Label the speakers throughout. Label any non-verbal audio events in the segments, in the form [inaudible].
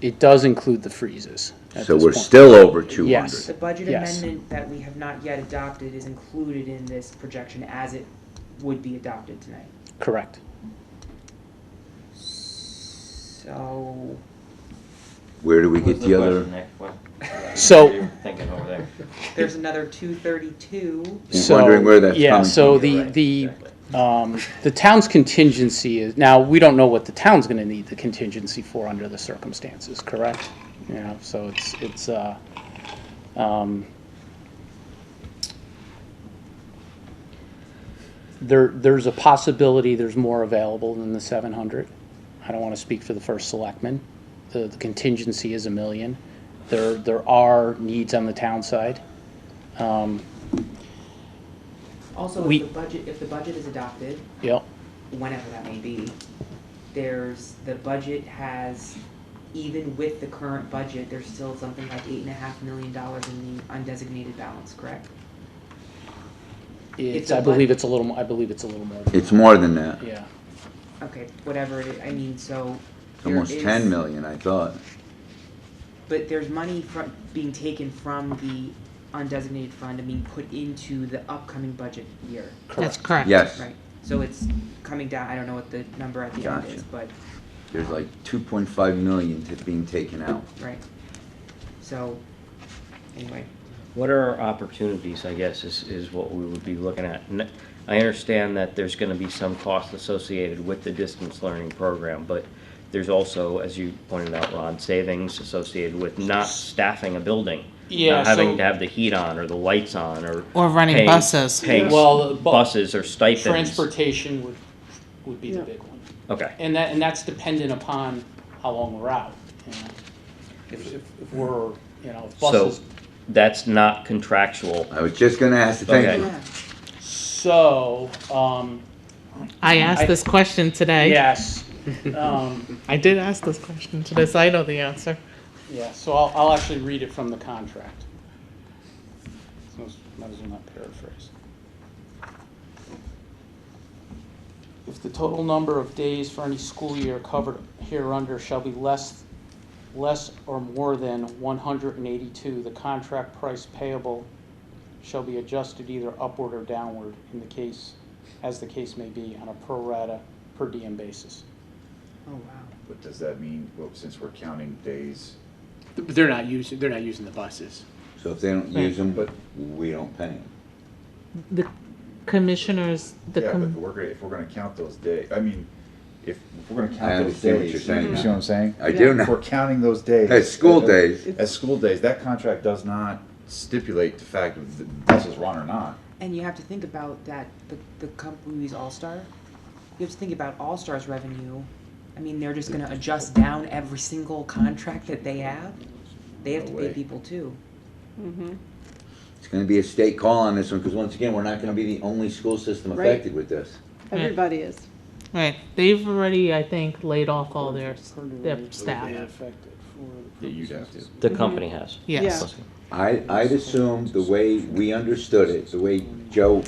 Speaker 1: it does include the freezes at
Speaker 2: So
Speaker 1: this
Speaker 2: we're
Speaker 1: point.
Speaker 2: still over two
Speaker 1: Yes.
Speaker 2: hundred.
Speaker 3: The budget
Speaker 1: Yes.
Speaker 3: amendment that we have not yet adopted is included in this projection as it would be adopted tonight.
Speaker 1: Correct.
Speaker 3: So,
Speaker 2: Where do we get
Speaker 4: What's
Speaker 2: the
Speaker 4: question,
Speaker 2: other
Speaker 4: Nick? What- what
Speaker 1: So-
Speaker 4: you're Thinking over there.
Speaker 3: there's another two thirty-two.
Speaker 2: He's
Speaker 1: So-
Speaker 2: wondering where that's
Speaker 1: Yeah,
Speaker 2: coming
Speaker 1: so
Speaker 2: from.
Speaker 1: the,
Speaker 4: Right,
Speaker 1: the,
Speaker 4: exactly.
Speaker 1: um, the town's contingency is, now, we don't know what the town's gonna need the contingency for under the circumstances, correct? You know, so it's, it's, uh, um, there, there's a possibility there's more available than the seven hundred. I don't wanna speak for the first selectman. The, the contingency is a million. There, there are needs on the town side. Um,
Speaker 3: Also,
Speaker 1: We-
Speaker 3: if the budget, if the budget is adopted,
Speaker 1: yep.
Speaker 3: whenever that may be, there's, the budget has, even with the current budget, there's still something like eight and a half million dollars in the undesignated balance, correct?
Speaker 1: It's,
Speaker 3: It's a
Speaker 1: I believe
Speaker 3: what?
Speaker 1: it's a little, mo- I believe it's a little more,
Speaker 2: It's more than that.
Speaker 1: yeah.
Speaker 3: Okay, whatever, it- I mean, so.
Speaker 2: It's
Speaker 3: there
Speaker 2: almost
Speaker 3: is-
Speaker 2: ten million, I thought.
Speaker 3: But there's money from, being taken from the undesignated fund and being put into the upcoming budget year,
Speaker 5: That's correct.
Speaker 2: Yes,
Speaker 3: right? So it's coming down, I don't know what the number at the end
Speaker 2: Gotcha.
Speaker 3: is, but,
Speaker 2: there's like two point five million to being taken out.
Speaker 3: right? So, anyway.
Speaker 4: What are our opportunities, I guess, is, is what we would be looking at. N- I understand that there's gonna be some cost associated with the distance learning program, but there's also, as you pointed out, Ron, savings associated with not staffing a building.
Speaker 1: Yeah,
Speaker 4: Not having
Speaker 1: so-
Speaker 4: to have the heat on or the lights on or.
Speaker 5: Or running
Speaker 4: pay-
Speaker 5: buses.
Speaker 4: Pay
Speaker 1: Well, the bu-
Speaker 4: buses or stipends.
Speaker 1: Transportation would, would be the big one.
Speaker 4: Okay.
Speaker 1: And that, and that's dependent upon how long we're out, you know. If, if if we're, you know, if
Speaker 4: So
Speaker 1: buses,
Speaker 4: that's not contractual.
Speaker 2: I was just gonna ask the
Speaker 4: Okay.
Speaker 2: thank you.
Speaker 1: so, um,
Speaker 5: I asked
Speaker 1: I-
Speaker 5: this question today.
Speaker 1: yes. Um,
Speaker 5: I did ask this question today, so I know the answer.
Speaker 1: yeah, so I'll, I'll actually read it from the contract. So, Might as well not paraphrase. If the total number of days for any school year covered hereunder shall be less, less or more than one hundred and eighty-two, the contract price payable shall be adjusted either upward or downward in the case, as the case may be, on a pro rata per diem basis.
Speaker 3: Oh, wow.
Speaker 6: But does that mean, well, since we're counting days,
Speaker 7: But They're not using, they're not using the buses.
Speaker 2: So if they don't use them, but we don't pay them.
Speaker 5: The commissioners, the
Speaker 6: yeah, but
Speaker 5: com-
Speaker 6: we're, gonna- if we're gonna count those days, I mean, if, if we're gonna
Speaker 2: I
Speaker 6: count those
Speaker 2: understand what
Speaker 6: days.
Speaker 2: you're saying
Speaker 6: You see
Speaker 2: now.
Speaker 6: what I'm saying?
Speaker 2: I do
Speaker 6: If we're
Speaker 2: know.
Speaker 6: counting those days.
Speaker 2: As school
Speaker 6: uh,
Speaker 2: days.
Speaker 6: As school days, that contract does not stipulate the fact of the buses run or not.
Speaker 3: And you have to think about that, the, the company's All-Star, you have to think about All-Star's revenue. I mean, they're just gonna adjust down every single contract that they have. They have to
Speaker 6: No
Speaker 3: pay
Speaker 6: way.
Speaker 3: people too.
Speaker 8: Mm-hmm.
Speaker 2: It's gonna be a state call on this one, because once again, we're not gonna be the only school system
Speaker 3: Right.
Speaker 2: affected with this.
Speaker 8: Everybody is.
Speaker 5: right, they've already, I think, laid off all their, their staff.
Speaker 6: Yeah, you'd have to.
Speaker 4: The
Speaker 1: Mm-hmm.
Speaker 4: company has.
Speaker 5: Yes.
Speaker 2: I, I'd assume the way we understood it, the way Joe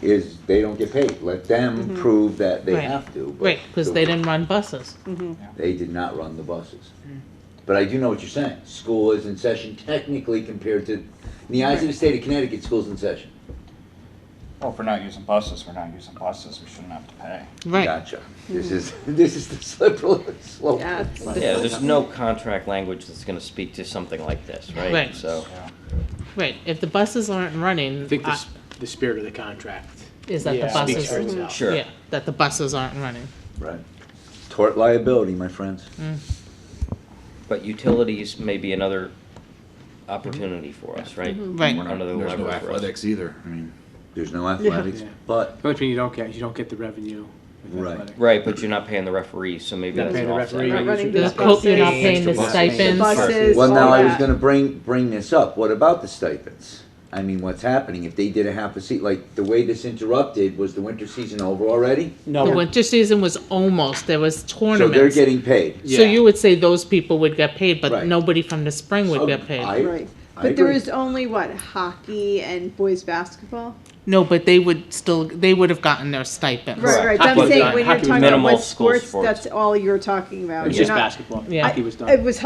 Speaker 2: is, they don't get paid. Let them prove that they
Speaker 5: Right.
Speaker 2: have to. but
Speaker 5: Right, because they didn't run buses.
Speaker 2: They did not run the buses.
Speaker 8: Hmm.
Speaker 2: But I do know what you're saying. School is in session technically compared to, in the eyes of the state of Connecticut, school's in session.
Speaker 9: Well, if we're not using buses, we're not using buses, we shouldn't have to pay.
Speaker 5: Right,
Speaker 2: Gotcha. This is, [laughs] this is the slippery slope.
Speaker 8: Hmm. Yeah, it's-
Speaker 4: Yeah, there's no contract language that's gonna speak to something like this, right?
Speaker 5: Right.
Speaker 4: So.
Speaker 5: right. If the buses aren't running,
Speaker 7: I think the,
Speaker 5: I-
Speaker 7: s- the spirit of the contract
Speaker 5: is that the
Speaker 1: Yeah,
Speaker 7: speaks for
Speaker 5: buses, Mm-hmm.
Speaker 7: itself.
Speaker 4: Sure.
Speaker 5: yeah, that the buses aren't running.
Speaker 2: Right. Tort liability, my friends.
Speaker 4: But utilities may be another opportunity for us, right?
Speaker 5: Mm-hmm. Right.
Speaker 6: We're not-
Speaker 4: Another
Speaker 6: There's
Speaker 4: lever
Speaker 6: no
Speaker 4: for us.
Speaker 6: athletics either, I mean.
Speaker 2: There's no athletics,
Speaker 7: Yeah.
Speaker 2: but
Speaker 7: Which means you don't get, you don't get the revenue. with
Speaker 2: Right.
Speaker 7: athletic.
Speaker 4: Right, but you're not paying the referees, so maybe
Speaker 7: Not
Speaker 4: that's
Speaker 7: paying
Speaker 4: an
Speaker 7: the
Speaker 4: offset.
Speaker 7: referee.
Speaker 8: Not running
Speaker 5: The
Speaker 8: the
Speaker 5: co-
Speaker 8: buses.
Speaker 5: You're not paying the
Speaker 4: Extra buses.
Speaker 8: The
Speaker 5: stipends.
Speaker 8: buses,
Speaker 2: Well, now
Speaker 8: all
Speaker 2: I was
Speaker 8: that.
Speaker 2: gonna bring, bring this up, what about the stipends? I mean, what's happening, if they did a half a seat, like, the way this interrupted, was the winter season over already?
Speaker 1: No,
Speaker 5: The
Speaker 1: we're-
Speaker 5: winter season was almost, there was
Speaker 2: So they're
Speaker 5: tournaments.
Speaker 2: getting paid.
Speaker 5: So
Speaker 7: Yeah.
Speaker 5: you would say those people would get paid, but
Speaker 2: Right.
Speaker 5: nobody from the spring would
Speaker 2: So
Speaker 5: get paid.
Speaker 2: I-
Speaker 8: Right.
Speaker 2: I
Speaker 8: But there
Speaker 2: agree.
Speaker 8: is only what hockey and boys basketball.
Speaker 5: No, but they would still, they would have gotten their stipends.
Speaker 8: Right, right.
Speaker 7: Hockey
Speaker 8: I'm
Speaker 7: was
Speaker 8: saying
Speaker 7: done-
Speaker 8: when
Speaker 7: hockey
Speaker 8: you're
Speaker 7: was done.
Speaker 8: talking about
Speaker 4: Minimal
Speaker 8: what
Speaker 4: school
Speaker 8: sports,
Speaker 4: sports.
Speaker 8: that's all you're talking about.
Speaker 7: It's
Speaker 8: You're
Speaker 7: just
Speaker 8: not-
Speaker 7: basketball.
Speaker 5: Yeah.
Speaker 7: Hockey was done.
Speaker 8: It was